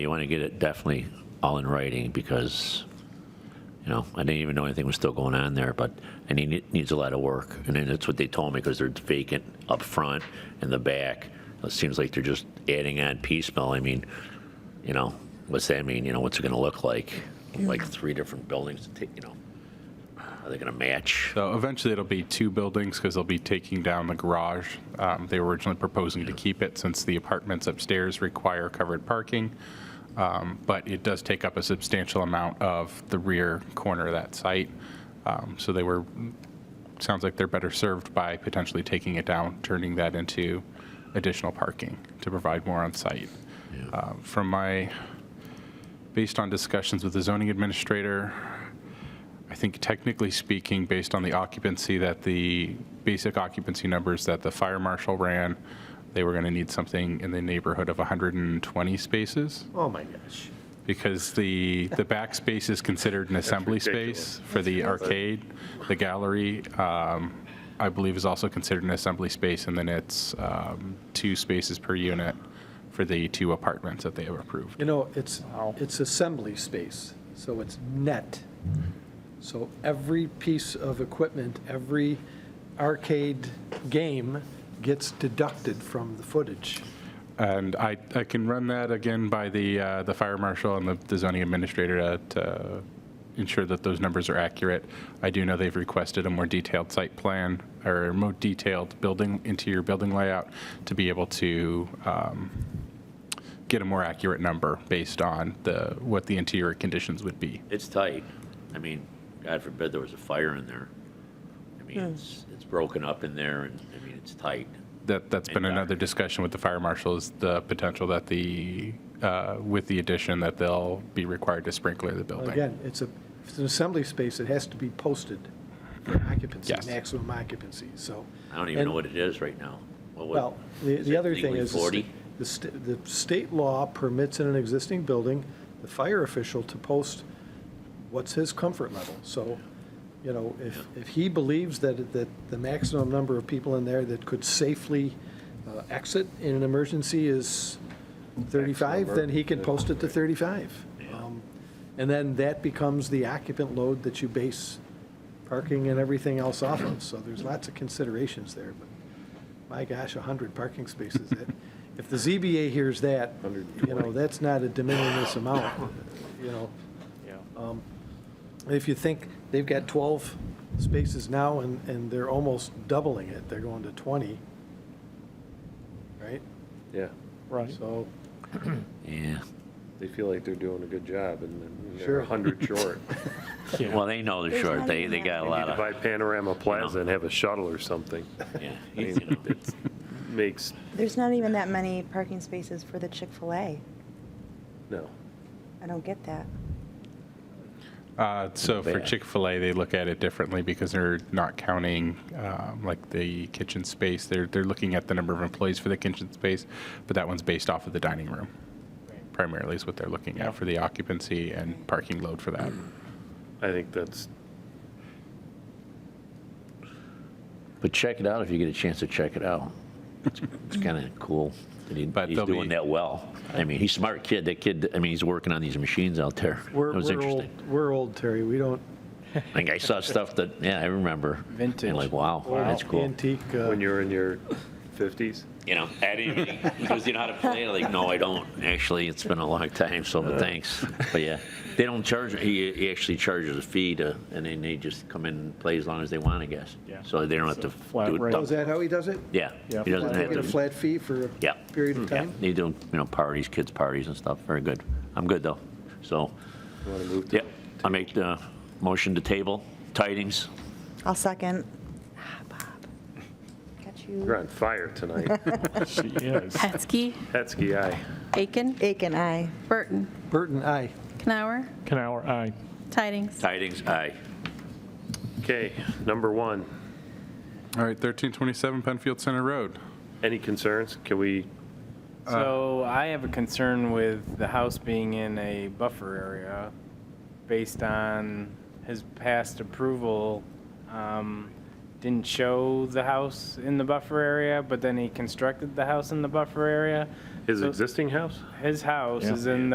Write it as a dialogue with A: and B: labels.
A: You want to get it definitely all in writing because, you know, I didn't even know anything was still going on there, but, and it need- needs a lot of work. And then that's what they told me because they're vacant up front and the back. It seems like they're just adding on piecemeal. I mean, you know, what's that mean? You know, what's it going to look like? Like three different buildings to take, you know, are they going to match?
B: So eventually it'll be two buildings because they'll be taking down the garage. Um, They were originally proposing to keep it since the apartments upstairs require covered parking. Um, But it does take up a substantial amount of the rear corner of that site. Um, So they were, sounds like they're better served by potentially taking it down, turning that into additional parking to provide more on site. Uh, From my, based on discussions with the zoning administrator, I think technically speaking, based on the occupancy that the basic occupancy numbers that the fire marshal ran, they were going to need something in the neighborhood of 120 spaces
C: Oh, my gosh.
B: because the, the back space is considered an assembly space for the arcade. The gallery, um, I believe, is also considered an assembly space, and then it's um, two spaces per unit for the two apartments that they have approved.
D: You know, it's, it's assembly space, so it's net. So every piece of equipment, every arcade game gets deducted from the footage.
B: And I, I can run that again by the, uh, the fire marshal and the- the zoning administrator to- to ensure that those numbers are accurate. I do know they've requested a more detailed site plan or a more detailed building, interior building layout to be able to um, get a more accurate number based on the, what the interior conditions would be.
A: It's tight. I mean, God forbid there was a fire in there. I mean, it's, it's broken up in there and, I mean, it's tight.
B: That, that's been
A: Exactly.
B: another discussion with the fire marshal is the potential that the, uh, with the addition that they'll be required to sprinkler the building.
D: Again, it's a, it's an assembly space, it has to be posted for occupancy,
B: Yes.
D: maximum occupancy, so.
A: I don't even know what it is right now. What would-
D: Well, the,
A: is
D: the
A: it
D: other thing
A: legally
D: is, the sta-
A: 40?
D: the, sta- the state law permits in an existing building, the fire official to post what's his comfort level. So, you know, if, if he believes that, that the maximum number of people in there that could safely uh, exit in an emergency is 35, then he can post it to 35. Um, And then that becomes the occupant load that you base parking and everything else off of. So there's lots of considerations there, but my gosh, 100 parking spaces. that- If the ZBA hears that, you know, that's not a de minimis amount, you know. Um, If you think they've got 12 spaces now and, and they're almost doubling it, they're going to 20, right?
E: Yeah,
C: Right.
D: So,
A: Yeah.
E: they feel like they're doing a good job and then
D: Sure.
E: they're 100 short.
A: Well, they know they're
F: There's
A: short.
F: not
A: They,
F: even
A: they got
F: that
A: a
E: Need
A: lot
E: to
A: of,
E: buy Panorama Plaza and have a shuttle or something.
A: yeah.
E: I
A: you
E: mean,
A: know.
E: it makes,
F: There's not even that many parking spaces for the Chick-fil-A.
E: no.
F: I don't get that.
B: Uh, So for
A: Bad.
B: Chick-fil-A, they look at it differently because they're not counting um, like the kitchen space. They're, they're looking at the number of employees for the kitchen space, but that one's based off of the dining room primarily is what they're looking at for the occupancy and parking load for that.
E: I think that's,
A: But check it out if you get a chance to check it out. It's kind of cool. that he-
B: But
A: He's
B: they'll
A: doing
B: be-
A: that well. I mean, he's a smart kid. That kid, I mean, he's working on these machines out there. It
D: we're,
A: was
D: we're old,
A: interesting.
D: we're old, Terry, we don't.
A: I think I saw stuff that, yeah, I remember.
C: Vintage.
A: And like, wow, that's cool.
D: Antique. uh,
E: when you're in your 50s.
A: You know, I didn't, because you know how to play it. Like, no, I don't. Actually, it's been a long time, so but thanks. But yeah, they don't charge, he, he actually charges a fee to, and then they just come in and play as long as they want, I guess.
C: Yeah.
A: So they don't have to
C: flat
A: do
C: rate.
A: it.
D: Oh, is
A: double.
D: that how he does it?
A: Yeah.
C: Yeah,
A: He doesn't have
D: Get a
A: to.
D: flat fee for a
A: Yeah. Mm.
D: period of
A: Yeah,
D: time?
A: they do, you know, parties, kids' parties and stuff. Very good. I'm good, though. So,
E: You want to move to
A: yeah, I make the motion to table tidings.
F: I'll second. Ah, Bob. Got
E: You're
F: you.
E: on fire tonight.
C: She is.
G: Hetzke,
E: Hetzke, aye.
G: Aiken,
F: Aiken, aye.
G: Burton,
D: Burton, aye.
G: Knauer,
C: Canower, aye.
G: Tidings.
A: Tidings, aye.
E: Okay, number one,
B: All right, 1327 Penfield Center Road.
E: any concerns? Can we,
H: So I have a concern with the house being in a buffer area based on his past approval. um, Didn't show the house in the buffer area, but then he constructed the house in the buffer area.
E: his
H: So
E: existing house?
H: His house is in